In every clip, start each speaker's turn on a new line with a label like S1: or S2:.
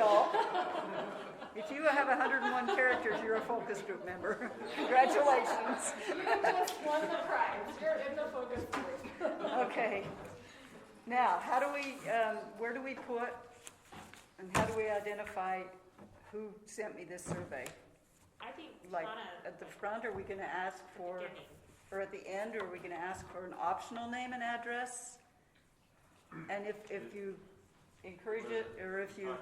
S1: Oh, If you have 101 characters, you're a focus group member. Congratulations.
S2: You just won the prize. You're in the focus group.
S1: Okay. Now, how do we, um, where do we put, and how do we identify who sent me this survey?
S3: I think we
S1: Like,
S3: wanna,
S1: at the front, are we gonna ask for,
S3: beginning.
S1: or at the end, are we gonna ask for an optional name and address? And if, if you encourage it, or if you,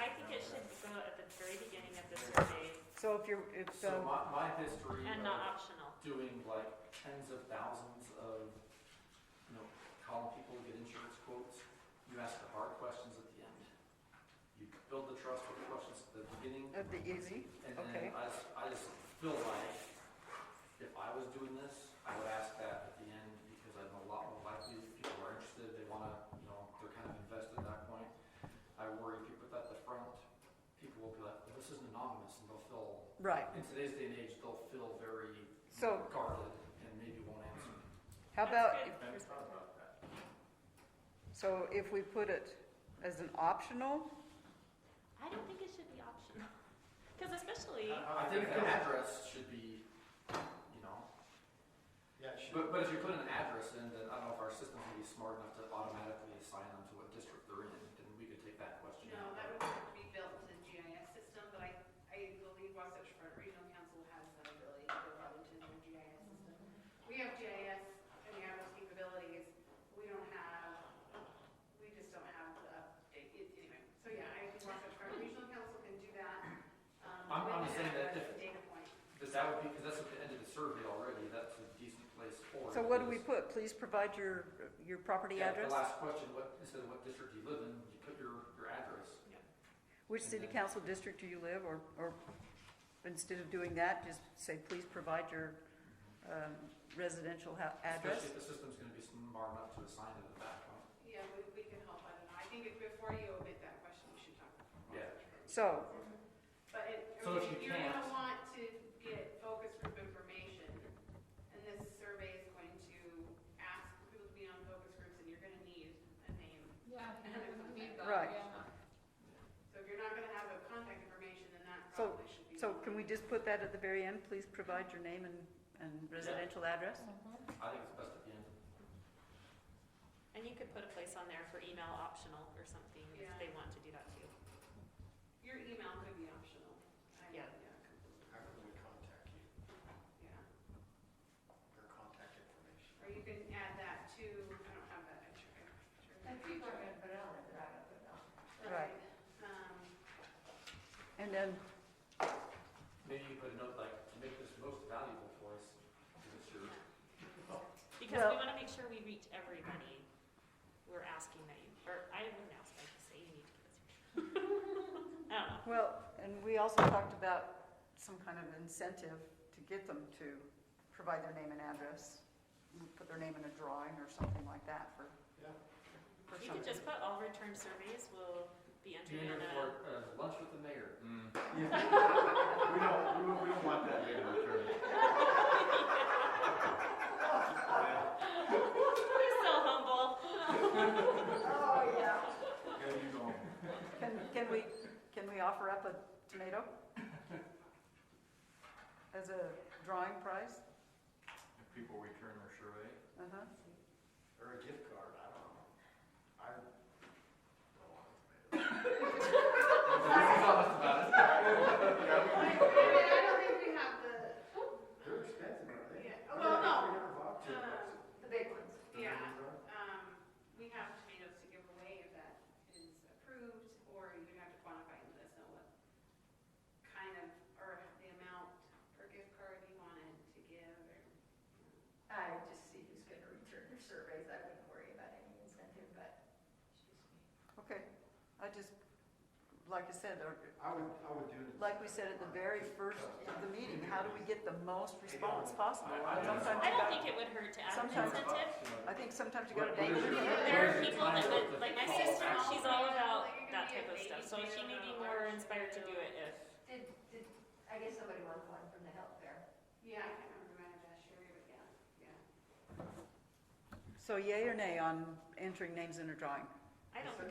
S3: I think it should go at the very beginning of the survey
S1: so if you're, if,
S4: So
S1: um,
S4: my, my history
S3: and
S4: of
S3: not optional.
S4: doing like tens of thousands of, you know, calling people to get insurance quotes, you ask the hard questions at the end. You build the trust with questions at the beginning,
S1: of the easy,
S4: and
S1: Okay.
S4: then I, s- I just feel like if I was doing this, I would ask that at the end, because I'm a lot more likely, if people are interested, they wanna, you know, they're kind of invested at that point. I worry if you put that at the front, people will be like, well, this isn't anonymous, and they'll feel
S1: right.
S4: in today's day and age, they'll feel very
S1: So-
S4: guarded and maybe won't answer.
S1: How
S3: That's
S1: about,
S3: good.
S1: if- so if we put it as an optional,
S3: I don't think it should be optional. Because especially,
S4: I think the address should be, you know,
S5: Yeah, sure.
S4: but, but if you put an address in, then I don't know if our system would be smart enough to automatically assign them to what district they're in, and we could take that question.
S6: No, that would have to be built into the GIS system, but I, I believe Wasatch Front Regional Council has that ability to go out into their GIS system. We have GIS and we have those capabilities, we don't have, we just don't have the update, it- anyway. So yeah, I think Wasatch Front Regional Council can do that. um,
S4: I'm- I'm
S6: with
S4: saying
S6: an
S4: that
S6: address
S4: if-
S6: and Data point.
S4: But that would be, because that's at the end of the survey already, that's a decent place for. it,
S1: so what do we
S4: because-
S1: put? Please provide your, your property
S4: Yeah,
S1: address?
S4: The last question, what, instead of what district you live in, you put your, your address.
S1: Which city
S4: Mm-hmm.
S1: council district do you live, or, or instead of doing that, just say, please provide your um, residential hou- address?
S4: Especially if the system's gonna be smart enough to assign it at that point.
S6: Yeah, we, we can help, I don't know, I think if, before you omit that question, you should talk. to
S4: Yeah.
S6: Wasatch Front.
S1: So,
S6: But it, I
S4: So
S6: mean,
S4: if you
S6: if you're gonna
S4: can't-
S6: want to get focus group information, and this survey is going to ask people to be on focus groups, and you're gonna need a name.
S2: Yeah,
S6: and it would be
S1: that, Right.
S6: So if you're not gonna have a contact information, then that
S1: So-
S6: probably should be.
S1: so can we just put that at the very end, please provide your name and, and residential address?
S4: I think it's best at the end.
S3: and you could put a place on there for email optional or something if
S6: Yeah.
S3: they want to do that too.
S6: Your email could be optional. I-
S3: Yeah.
S6: completely.
S5: How can we contact you,
S6: Yeah,
S5: your contact information?
S6: or you can add that to, I don't have that, I'm sure. I'm sure
S2: And
S6: that-
S2: people are gonna put it on, they're not gonna put it on.
S1: Right.
S6: Um,
S1: And then,
S4: Maybe you put a note like, to make this most valuable for us, because it's your,
S3: Because
S1: Well-
S3: we wanna make sure we reach everybody. We're asking that you, or I wouldn't ask, I'd just say you need to give us. I don't know.
S1: well, and we also talked about some kind of incentive to get them to provide their name and address, put their name in a drawing or something like that for,
S5: Yeah.
S1: for
S3: You could
S1: somebody.
S3: just put all return surveys will be
S4: do you
S3: entered in
S4: enter
S3: a,
S4: for uh, lunch with the mayor?
S5: We don't, Mm. we don't, we don't want that later, Karen.
S3: He's so humble.
S2: Oh, yeah.
S5: There you go.
S1: Can, can we, can we offer up a tomato? As a drawing prize?
S5: If people return their survey,
S1: Uh-huh.
S5: or a gift card, I don't know. I don't want it.
S6: I mean, I don't think we have the,
S5: They're expensive, aren't they?
S6: yeah, oh, well, no,
S5: Two bucks.
S6: Uh, the big ones, yeah.
S5: Remember?
S6: Um, we have tomatoes to give away if that is approved, or you'd have to quantify and let us know what kind of, or the amount per gift card you wanted to give, or,
S2: I would just see who's gonna return their surveys, I wouldn't worry about any incentive, but.
S1: Okay, I just, like I said, or,
S5: I would, I would do it.
S1: like we said at the very first of the meeting, how do we get the most response possible?
S4: I- I-
S1: Sometimes you
S3: I don't
S1: got-
S3: think it would hurt to add an
S1: Sometimes-
S3: incentive.
S1: I think sometimes you gotta
S4: What- what
S1: name it.
S4: is your-
S3: There are people that would, like my sister, she's all about that type of stuff, so she may be more inspired to do it if.
S2: Did, did, I guess somebody wanted one from the health fair.
S6: yeah, I can't remember my address, Sherry, but yeah, yeah.
S1: So yay or nay on entering names in a drawing?
S3: I don't think